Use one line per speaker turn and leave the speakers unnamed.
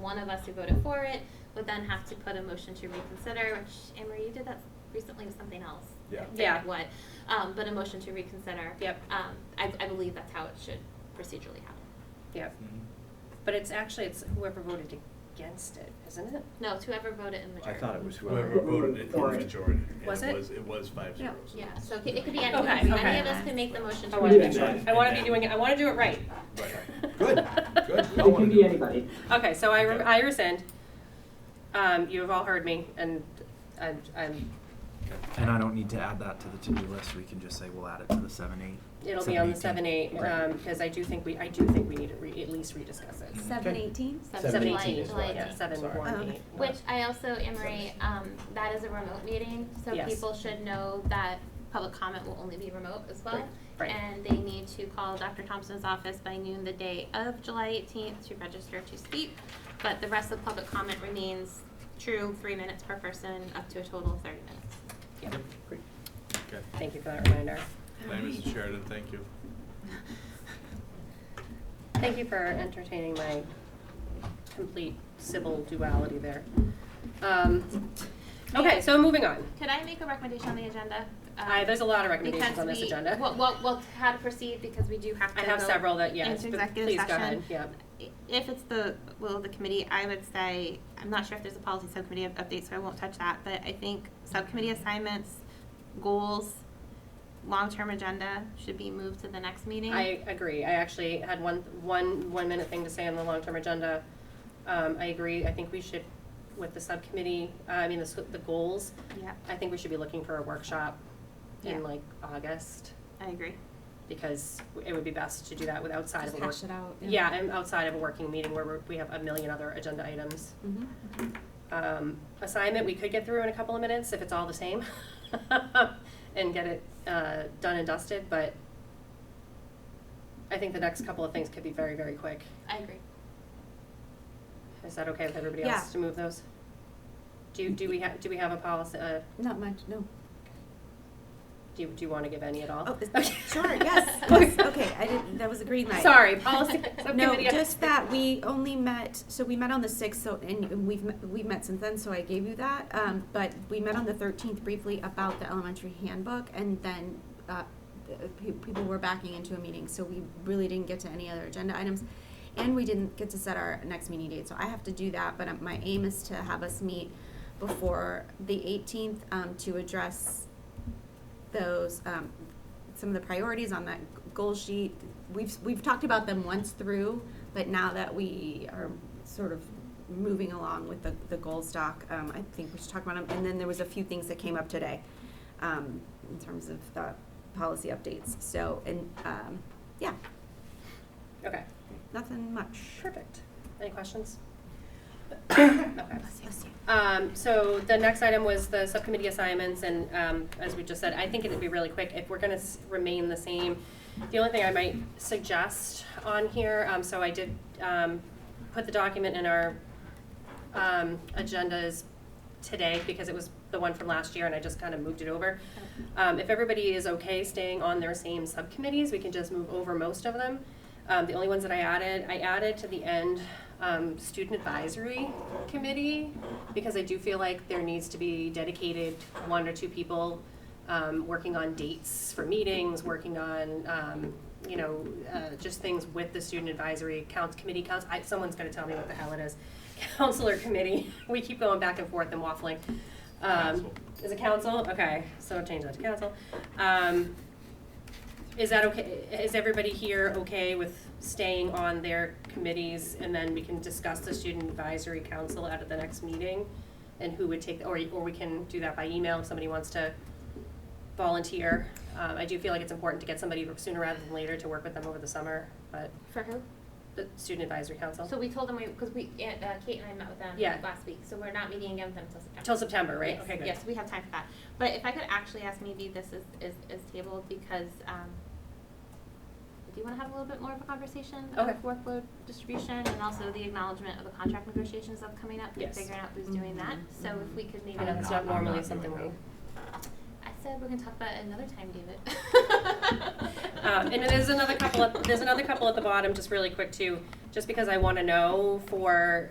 one of us who voted for it would then have to put a motion to reconsider, which, Anne Marie, you did that recently with something else.
Yeah.
I forget
Yeah.
What, um, but a motion to reconsider.
Yep.
Um, I, I believe that's how it should procedurally happen.
Yeah,
Mhm.
but it's actually, it's whoever voted against it, isn't it?
No, it's whoever voted in
I
majority.
thought it was
Whoever
whoever.
voted it for
For it.
majority. and
Was it?
was- It was
Yeah.
five zero. so
Yeah,
that's-
so it could- it could be
Okay,
anyone, any
okay.
of us can make the motion to.
I wanna
Yeah.
make sure, I wanna be doing, it. I wanna do it right.
Right,
right. Good, good.
It can be anybody.
Okay, so I, re-
Okay.
I rescind. Um, you have all heard me, and I'm, I'm,
And I don't need to add that to the to-do list, we can just say we'll add it to the seven eight.
it'll be on the seven
718.
eight, um, cause I do think we, I do think we need to re, at least rediscuss it.
Seven eighteen?
Seven
July-
eighteen,
July
yeah,
18th.
seven
Sorry.
one
Oh,
eight.
Which I also, Anne Marie, um, that is a remote meeting, so
Yes.
people should know that public comment will only be remote as well.
Right, right.
And they need to call Dr. Thompson's office by noon the day of July eighteenth to register to speak. But the rest of public comment remains true, three minutes per person, up to a total of thirty minutes.
Yeah.
Okay.
Thank you for that reminder.
Thank you, Mrs. Sheridan, thank you.
Thank you for entertaining my complete civil duality there. Um, okay, so moving on.
Could I make a recommendation on the agenda? Um,
I, there's a lot of recommendations
because
on this
we-
agenda.
Well, well, well, how to proceed, because we do have to
I have
go
several that, yes,
into
but
executive
please go
session.
ahead, yeah.
If it's the will of the committee, I would say, I'm not sure if there's a policy subcommittee up- update, so I won't touch that, but I think subcommittee assignments, goals, long-term agenda should be moved to the next meeting.
I agree. I actually had one, one, one minute thing to say on the long-term agenda. Um, I agree. I think we should, with the subcommittee, uh, I mean, the, s- the goals,
Yeah,
I think we should be looking for a workshop
Yeah.
in like August,
I agree.
because it would be best to do that with outside of
Just
a work.
hash it out.
Yeah, and outside of a working meeting where we're- we have a million other agenda items.
Mhm.
Um, assignment, we could get through in a couple of minutes if it's all the same and get it uh, done and dusted, but I think the next couple of things could be very, very quick.
I agree.
Is that okay with everybody
Yeah.
else to move those? Do, you- do we have, do we have a policy, uh,
Not much, no.
do you, do you want to give any at all?
Oh, is-
Okay.
sure, yes, yes, okay, I didn't, that was a green light.
Sorry, policy.
No,
subcommittee.
just that we only met, so we met on the sixth, so, and we've, met- we've met since then, so I gave you that. Um, but we met on the thirteenth briefly about the elementary handbook, and then, uh, pe- people were backing into a meeting, so we really didn't get to any other agenda items. And we didn't get to set our next meeting date, so I have to do that, but um, my aim is to have us meet before the eighteenth, um, to address those, um, some of the priorities on that goal sheet. We've, we've talked about them once through, but now that we are sort of moving along with the, the goals doc, um, I think we should talk about them. And then there was a few things that came up today, um, in terms of, uh, policy updates. So, and, um, yeah,
Okay,
nothing much.
perfect. Any questions? Okay.
Bless you.
Um, so the next item was the subcommittee assignments, and, um, as we just said, I think it'd be really quick if we're gonna s- remain the same. The only thing I might suggest on here, um, so I did, um, put the document in our, um, agendas today because it was the one from last year and I just kind of moved it over. Um, if everybody is okay staying on their same subcommittees, we can just move over most of them. Um, the only ones that I added, I added to the end, um, student advisory committee because I do feel like there needs to be dedicated one or two people um, working on dates for meetings, working on, um, you know, uh, just things with the student advisory counts, committee counts, I, someone's gonna tell me what the hell it is. Counselor committee, we keep going back and forth and waffling. Um,
Council.
is it council? Okay, so change that to council. Um, is that okay, is everybody here okay with staying on their committees? And then we can discuss the student advisory council out at the next meeting? And who would take, or, or we can do that by email if somebody wants to volunteer. Um, I do feel like it's important to get somebody sooner rather than later to work with them over the summer, but
For who?
the student advisory council.
So we told them, because we, Aunt- uh, Kate and I met with them
Oh. Yeah.
last week, so we're not meeting again with them until September.
Till September, right?
Yes,
Okay, good.
Yes, we have time for that. But if I could actually ask, maybe this is, is, is tabled because, um, do you wanna have a little bit more of a conversation of
Okay.
workload distribution and also the acknowledgement of the contract negotiations that's coming up? and
Yes.
Figuring out who's doing that, so if we could maybe,
I know that's
I
not
I'm not
normally
doing
something we.
that.
said we're gonna talk about it another time, David.
Um, and there's another couple, of- there's another couple at the bottom, just really quick too, just because I want to know for